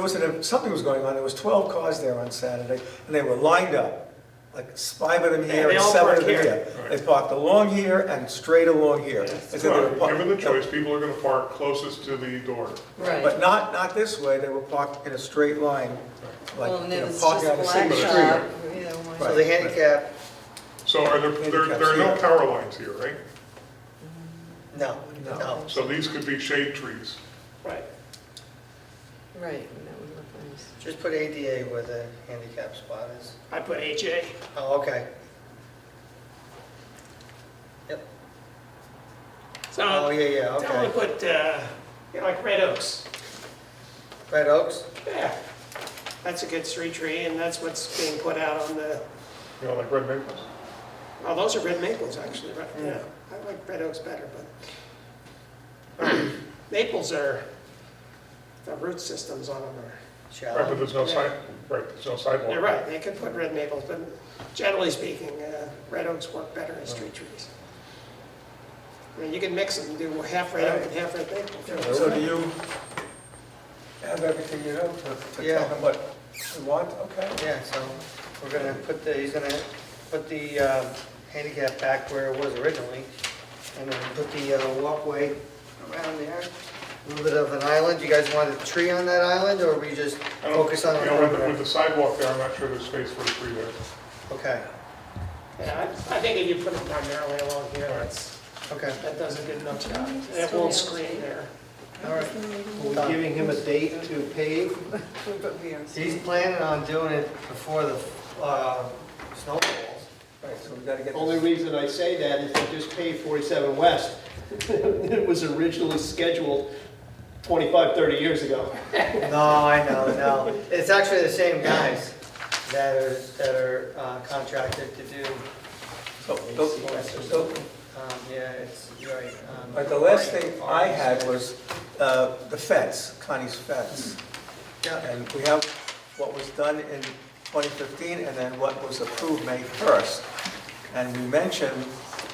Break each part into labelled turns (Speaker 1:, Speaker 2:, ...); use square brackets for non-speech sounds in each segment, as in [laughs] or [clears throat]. Speaker 1: noticed that if something was going on, there was 12 cars there on Saturday, and they were lined up, like five of them
Speaker 2: Yeah,
Speaker 1: here
Speaker 2: they
Speaker 1: and
Speaker 2: all
Speaker 1: seven
Speaker 2: park
Speaker 1: of them
Speaker 2: here.
Speaker 1: here. They parked along here and straight along here. They said they were
Speaker 3: Well,
Speaker 1: par-
Speaker 3: Given the choice, people are gonna park closest to the door.
Speaker 1: But
Speaker 4: Right.
Speaker 1: not, not this way, they were parked in a straight line, like,
Speaker 4: Well, and
Speaker 1: you
Speaker 4: then
Speaker 1: know,
Speaker 4: it's just
Speaker 1: parking on the
Speaker 4: blacktop.
Speaker 1: same
Speaker 3: street.
Speaker 4: yeah, why-
Speaker 1: Right.
Speaker 5: So the handicap,
Speaker 3: So are there, there, there are no power lines here, right?
Speaker 5: no,
Speaker 1: No.
Speaker 5: no.
Speaker 3: So these could be shade trees.
Speaker 2: Right.
Speaker 4: Right, and that would look nice.
Speaker 5: Just put ADA where the handicap spot is.
Speaker 2: I put HA.
Speaker 5: Oh, okay. Yep.
Speaker 2: So
Speaker 5: Oh,
Speaker 2: I
Speaker 5: yeah, yeah,
Speaker 2: am gonna
Speaker 5: okay.
Speaker 2: put, uh, you know, like red oaks.
Speaker 5: Red Oaks?
Speaker 2: Yeah. That's a good street tree and that's what's being put out on the,
Speaker 3: You know, like red maples.
Speaker 2: oh, those are red maples actually, right? Yeah.
Speaker 5: Mm.
Speaker 2: I like red oaks better, but maples are, the root systems on them are,
Speaker 3: Right, but
Speaker 5: Shallow.
Speaker 3: there's no side, right, there's no sidewalk.
Speaker 2: you're right, they could put red maples, but generally speaking, uh, red oaks work better as street trees. I mean, you can mix them, do half red oak and half red maple.
Speaker 1: So do you have everything you know to, to
Speaker 5: Yeah.
Speaker 1: tell them what you want, okay?
Speaker 5: Yeah, so we're gonna put the, he's gonna put the um, handicap back where it was originally, and then put the uh, walkway around there. A little bit of an island. You guys want a tree on that island, or we just
Speaker 3: I don't-
Speaker 5: focus on
Speaker 3: You
Speaker 5: the
Speaker 3: know, with the, with
Speaker 5: perimeter?
Speaker 3: the sidewalk there, I'm not sure there's space for a tree there.
Speaker 5: Okay,
Speaker 2: Yeah, I I think if you put it primarily along here, that's,
Speaker 5: okay,
Speaker 2: that does a good enough job. And It won't screen there.
Speaker 5: all right.
Speaker 6: Are we giving him a date to pave?
Speaker 5: He's planning on doing it before the uh, snow falls.
Speaker 1: Right, so we gotta get
Speaker 6: Only
Speaker 1: this,
Speaker 6: reason I say that is they just paved 47 West. [laughs] It was originally scheduled 25, 30 years ago.
Speaker 5: [laughs] No, I know, no. It's actually the same guys that are, that are uh, contracted to do,
Speaker 1: so, so- so,
Speaker 5: um, yeah, it's, you're right. um,
Speaker 1: but the last thing I had was, uh, the fence, Connie's fence.
Speaker 5: Yeah,
Speaker 1: And we have what was done in 2015 and then what was approved May 1st. And we mentioned,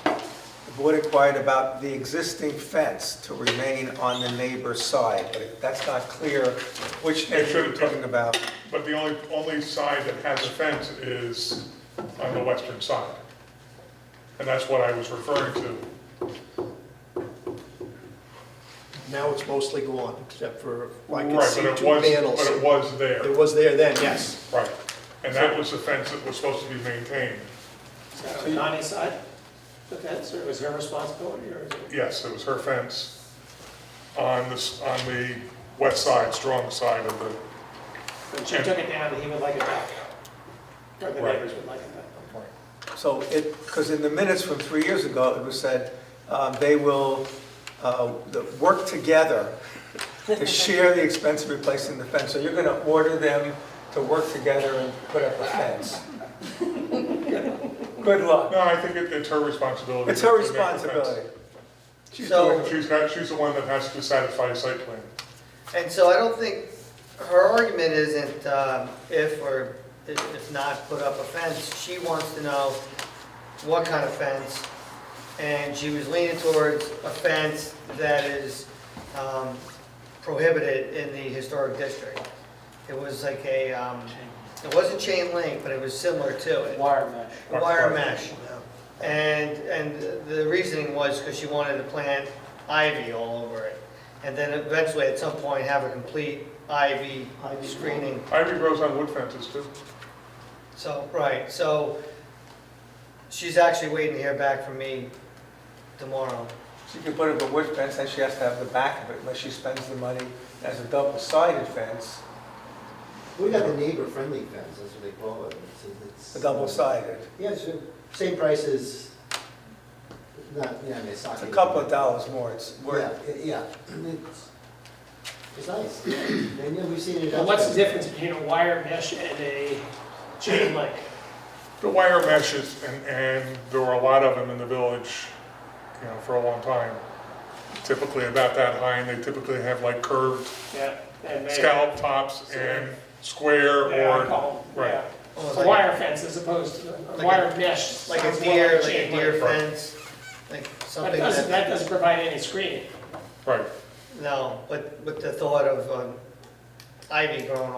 Speaker 1: the board inquired about the existing fence to remain on the neighbor's side, but that's not clear which
Speaker 3: It
Speaker 1: neighbor
Speaker 3: should-
Speaker 1: we're talking about.
Speaker 3: But the only, only side that has a fence is on the western side. And that's what I was referring to.
Speaker 6: Now it's mostly gone, except for, I
Speaker 3: Right,
Speaker 6: can
Speaker 3: but
Speaker 6: see
Speaker 3: it
Speaker 6: two
Speaker 3: was-
Speaker 6: panels.
Speaker 3: But it was there.
Speaker 6: It was there then, yes.
Speaker 3: Right, and that was the fence that was supposed to be maintained.
Speaker 2: So Connie's side, the fence, or was her responsibility, or is it?
Speaker 3: Yes, it was her fence on this, on the west side, strong side of the,
Speaker 2: But she took it down, and he would like it back. Or the neighbors would like it back.
Speaker 1: So it, because in the minutes from three years ago, it was said, um, they will, uh, the- work together to [laughs] share the expense of replacing the fence. So you're going to order them to work together and put up a [laughs] fence. Good luck.
Speaker 3: no, I think it- it's her responsibility.
Speaker 1: It's her
Speaker 3: to make the fence.
Speaker 1: responsibility. She's
Speaker 5: So-
Speaker 1: doing it.
Speaker 3: She's not, she's the one that has to satisfy site plan.
Speaker 5: And so I don't think, her argument isn't um, if or if if not put up a fence. She wants to know what kind of fence, and she was leaning towards a fence that is um, prohibited in the historic district. It was like a, um, it wasn't chain link, but it was similar to it.
Speaker 2: Wire mesh.
Speaker 5: A wire mesh. And, and the reasoning was because she wanted to plant ivy all over it. And then eventually, at some point, have a complete ivy
Speaker 6: Ivy
Speaker 5: screening.
Speaker 3: Ivy grows on wood fences too.
Speaker 5: So, right, so she's actually waiting to hear back from me tomorrow.
Speaker 1: She can put up a wood fence, and she has to have the back of it, unless she spends the money as a double-sided fence,
Speaker 7: We got the neighbor-friendly fence, that's what they call it. It's-
Speaker 1: a
Speaker 7: it's-
Speaker 1: double-sided.
Speaker 7: Yeah, it's the same price as, not, yeah, I mean, it's not.
Speaker 1: It's a couple of dollars more, it's
Speaker 7: Yeah,
Speaker 1: worth,
Speaker 7: it- yeah, [clears throat] it's, it's nice. [clears throat] And, you know, we've seen it.
Speaker 2: Well, what's the
Speaker 7: elsewhere.
Speaker 2: difference between a wire mesh and a chain link?
Speaker 3: The wire meshes, and, and there were a lot of them in the village, you know, for a long time. Typically about that high, and they typically have like curved
Speaker 2: Yeah. and they-
Speaker 3: scallop tops and square
Speaker 2: Yeah, I
Speaker 3: or,
Speaker 2: call them,
Speaker 3: Right.
Speaker 2: yeah.
Speaker 5: Almost
Speaker 2: A
Speaker 5: like-
Speaker 2: wire fence as opposed to a
Speaker 5: Like a-
Speaker 2: wire mesh.
Speaker 5: Like
Speaker 2: sounds
Speaker 5: a
Speaker 2: more
Speaker 5: deer, like a
Speaker 2: chain
Speaker 5: deer
Speaker 2: link.
Speaker 5: fence, like
Speaker 2: But
Speaker 5: something
Speaker 2: it doesn't,
Speaker 5: that,
Speaker 2: that doesn't provide any screening.
Speaker 3: right.
Speaker 5: no, but with the thought of um, ivy growing